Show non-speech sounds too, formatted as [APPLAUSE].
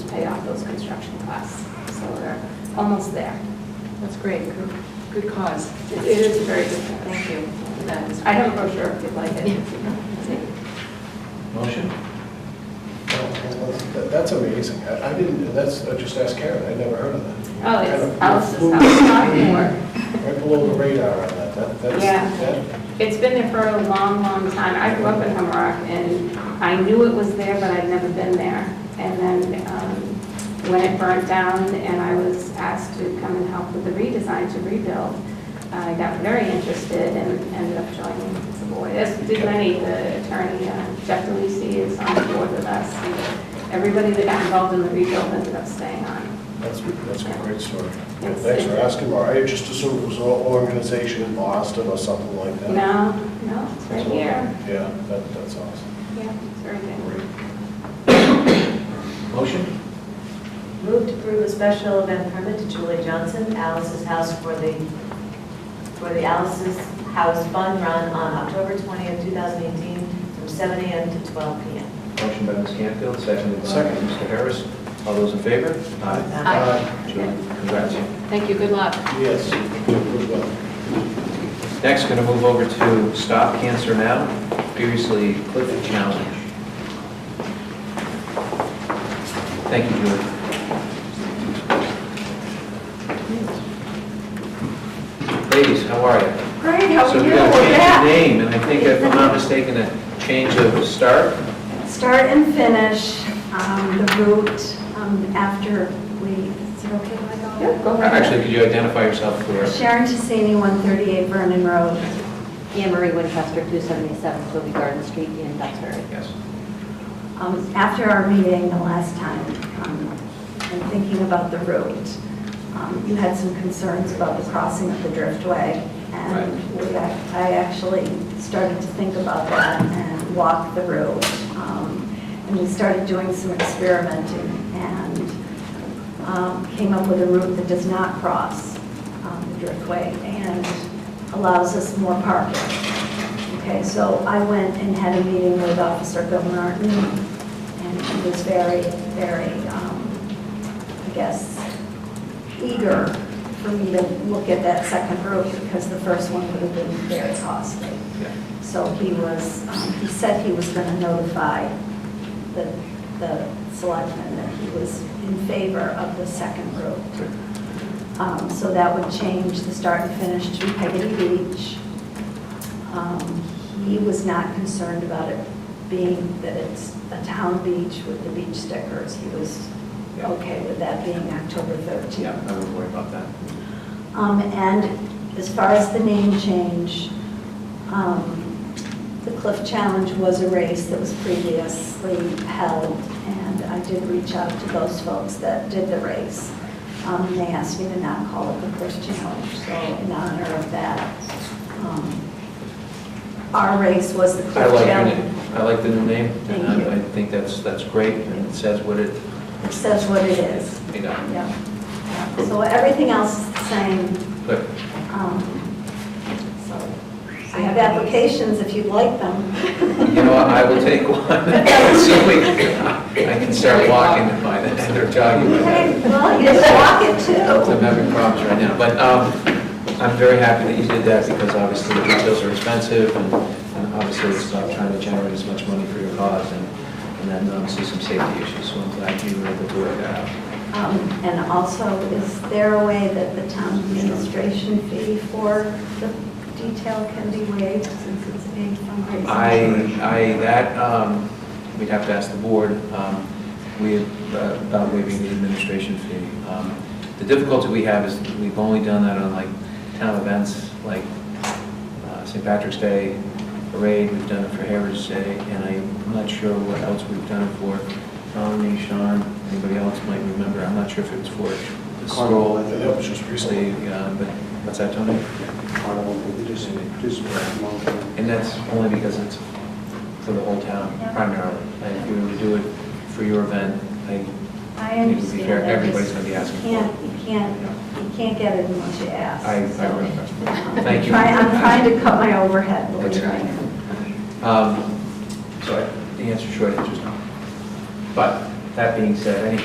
us. So we're almost there. That's great, good, good cause. It it is a very good thing. Thank you for that. Ms. I have a brochure if you'd like it. Oh, Motion? Well, that- That's amazing. I I didn't, that's, I just asked Karen, I'd never heard of that. Oh, Kind it's of Alice's flew house, not more. Right below the radar on that, that, that's, Yeah. that, It's been there for a long, long time. I grew up in Humrock, and I knew it was there, but I'd never been there. And then um, when it burnt down and I was asked to come and help with the redesign to rebuild, I got very interested and ended up joining the board. As did many, the attorney, uh, Jeff DeLisi is on the board with us. and Everybody that got involved in the rebuild ended up staying on. that's, that's a great story. Yes. Thanks for asking, Laura. I just assumed it was an organization in Boston or something like that. No, no, it's right here. Yeah, that, that's awesome. Yeah, it's right here. Great. Motion? Move to approve a special event permit to Julie Johnson, Alice's House for the, for the Alice's House Fun Run on October 20th, 2018, from 7 a.m. to 12 p.m. Motion by Ms. Canfield, seconded by Second. Mr. Harris. All those in favor? Aye. Julie, congrats. Thank you, good luck. Yes, good luck. Next, going to move over to Stop Cancer Now, previously Clifton Challenge. Thank you, Julie. Ladies, how are you? Great, how So are we you? got to change Yeah. the name, and I think if I'm not mistaken, a change of start. start and finish, um, the route, um, after we, is it okay if I go? Yeah, go right ahead. Actually, could you identify yourself for, Sharon Tissany, 138 Vernon Road. Anne Marie E Winchester, 277 Toby Garden Street E in Duxbury. yes? Um, After our meeting the last time, um, and thinking about the route, um, you had some concerns about the crossing of the Driftway. And we ac- I actually started to think about that and walk the route. Um, And we started doing some experimenting and um, came up with a route that does not cross um, the Driftway and allows us more parking. Okay, so I went and had a meeting with Officer Bill Martin, and he was very, very, um, I guess, eager for me to look at that second route, because the first one would have been very costly. Yeah. So he was, um, he said he was going to notify the, the selectmen that he was in favor of the second route. Um, So that would change the start and finish to Peggotty Beach. Um, He was not concerned about it being that it's a town beach with the beach stickers. He was Yeah. okay with that being October 13th. Yeah, I wouldn't worry about that. Um, And as far as the name change, um, the Cliff Challenge was a race that was previously held, and I did reach out to those folks that did the race. Um, and They asked me to not call it the Cliff Challenge, so in honor of that, um, our race was the I Cliff like your Challenge. name, I like the new name, and Thank you. I- I think that's, that's great, and it says what it, It says what it is, you know, yeah. Yeah. So everything else is the same. but Um, So I have applications if you'd like them. You know, what, I will take one, [LAUGHS] so we, I can start walking and find that, or jogging. by Okay, that. well, you can walk it I'm too. having problems right now, but um, I'm very happy that you did that, because obviously the details are expensive, and and obviously it's not trying to generate as much money for your cause, and and then obviously some safety issues, so I'm glad you were able to work that out. Um, And also, is there a way that the town administration fee for the detail can be waived since it's being fundraising? I, I, that, um, we'd have to ask the board, um, we, uh, about waiving the administration fee. Um, The difficulty we have is we've only done that on like town events, like uh, St. Patrick's Day Parade, we've done it for Heritage Day, and I'm not sure what else we've done it for. Melanie, Sean, anybody else might remember, I'm not sure if it was for the scroll. I think That was just recently. Obviously, uh, but, what's that, Tony? Carnival, we just, just one And that's only because it's for the whole town primarily. And if you were to do it for your event, I, I it would be understand. fair, I everybody's just- gonna be asking you for can't- it. You can't, you can't get it unless you ask. I, I so. remember. Um, Thank you. try- I'm trying to cut my overhead, believe That's me. Um, So I- the answer, short answer is no. But that being said, any